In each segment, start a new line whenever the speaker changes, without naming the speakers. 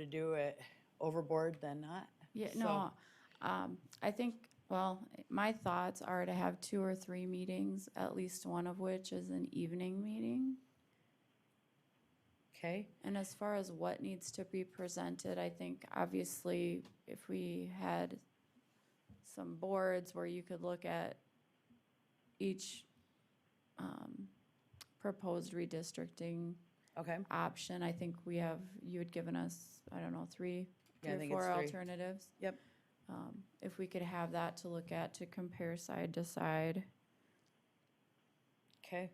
to do it overboard than not.
Yeah,
So-
no, um, I think, well, my thoughts are to have two or three meetings, at least one of which is an evening meeting.
Okay,
And as far as what needs to be presented, I think obviously if we had some boards where you could look at each, um, proposed redistricting
okay.
option, I think we have, you had given us, I don't know, three,
Yeah, I
three or
think it's
four
three.
alternatives.
Yep.
Um, If we could have that to look at, to compare side to side.
Okay.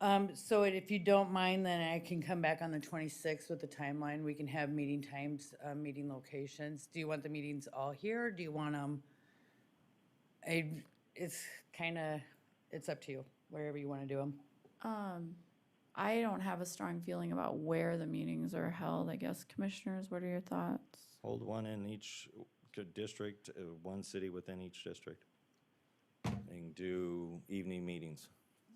Um, so if you don't mind, then I can come back on the twenty-sixth with the timeline. We can have meeting times, uh, meeting locations. Do you want the meetings all here? or Do you want them? I, it's kinda, it's up to you, wherever you wanna do them.
Um, I don't have a strong feeling about where the meetings are held, I guess. Commissioners, what are your thoughts?
Hold one in each c- district, uh, one city within each district. And do evening meetings.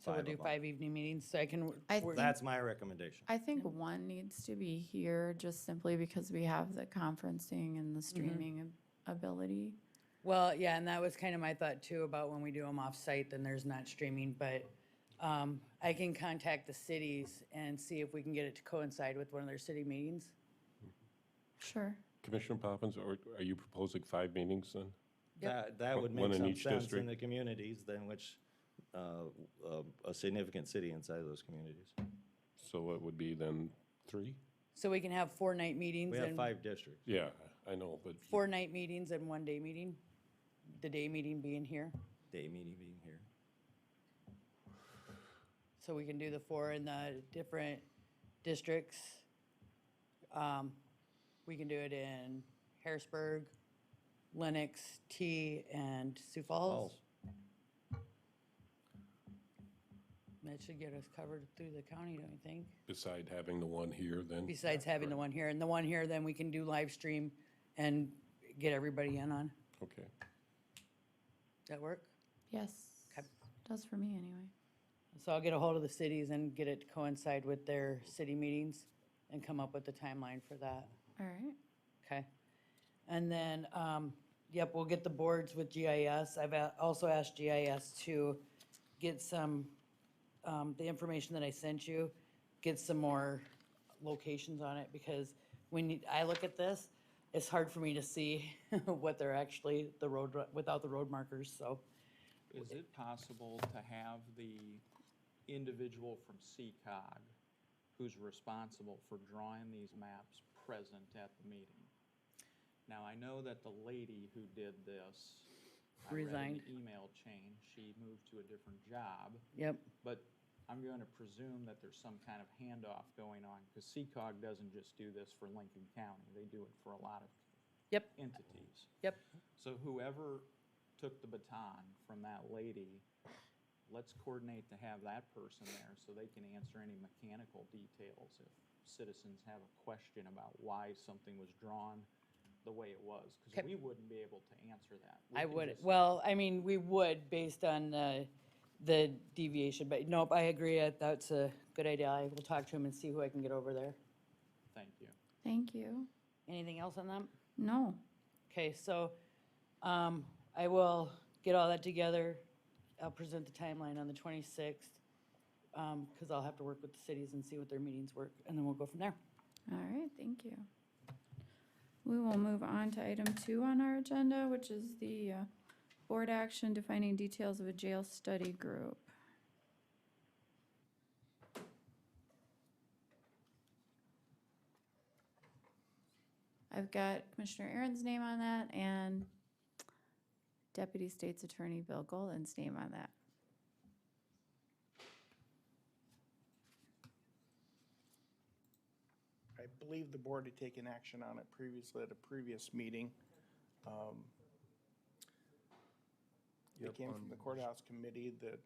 So we'll
five
do
of 'em.
five evening meetings, so I can,
I
we're-
think-
That's my recommendation.
I think one needs to be here just simply because we have the conferencing and the streaming ab- ability.
well, yeah, and that was kinda my thought too about when we do them off-site, then there's not streaming, but, um, I can contact the cities and see if we can get it to coincide with one of their city meetings.
Sure.
Commissioner Poppins, or are you proposing five meetings then?
That, that would
One
make
in
some
each
sense in
district.
the communities than which, uh, uh, a significant city inside of those communities.
So it would be then three?
So we can have four night meetings
We have
and,
five districts.
Yeah, I know, but
four night meetings and one day meeting? The day meeting being here,
Day meeting being here.
so we can do the four in the different districts. Um, We can do it in Harrisburg, Lenox, T, and Sioux Falls.
Falls.
That should get us covered through the county, don't you think?
beside having the one here, then?
Besides having the one here, and the one here, then we can do live stream and get everybody in on.
Okay.
That work?
Yes.
Okay.
Does for me anyway.
So I'll get a hold of the cities and get it to coincide with their city meetings and come up with the timeline for that.
All right.
Okay. And then, um, yep, we'll get the boards with GIS. I've a- also asked GIS to get some, um, the information that I sent you, get some more locations on it because when you- I look at this, it's hard for me to see what they're actually, the road, without the road markers, so.
Is it possible to have the individual from CCOG who's responsible for drawing these maps present at the meeting? Now, I know that the lady who did this, I read in
Resigned.
the email chain, she moved to a different job,
Yep,
but I'm going to presume that there's some kind of handoff going on, because CCOG doesn't just do this for Lincoln County, they do it for a lot of
Yep.
entities.
yep.
So whoever took the baton from that lady, let's coordinate to have that person there so they can answer any mechanical details if citizens have a question about why something was drawn the way it was, because
Okay.
we wouldn't be able to answer that. We
I
can
would,
just-
well, I mean, we would based on the, the deviation, but nope, I agree. I- That's a good idea. I will talk to him and see who I can get over there.
Thank you.
Thank you.
Anything else on them?
No.
Okay, so, um, I will get all that together. I'll present the timeline on the twenty-sixth, um, cause I'll have to work with the cities and see what their meetings work, and then we'll go from there.
All right, thank you. We will move on to item two on our agenda, which is the uh, board action defining details of a jail study group. I've got Commissioner Aaron's name on that and Deputy State's Attorney Bill Golden's name on that.
I believe the board had taken action on it previously at a previous meeting. Um, It came from the courthouse committee that,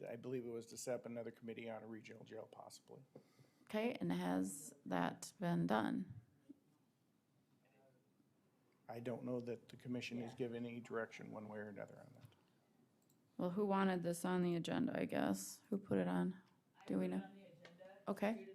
that I believe it was to set up another committee on a regional jail possibly.
Okay, and has that been done?
I don't know that the commission has given any direction one way or another on that.
Well, who wanted this on the agenda, I guess? Who put it on? Do we know? Okay.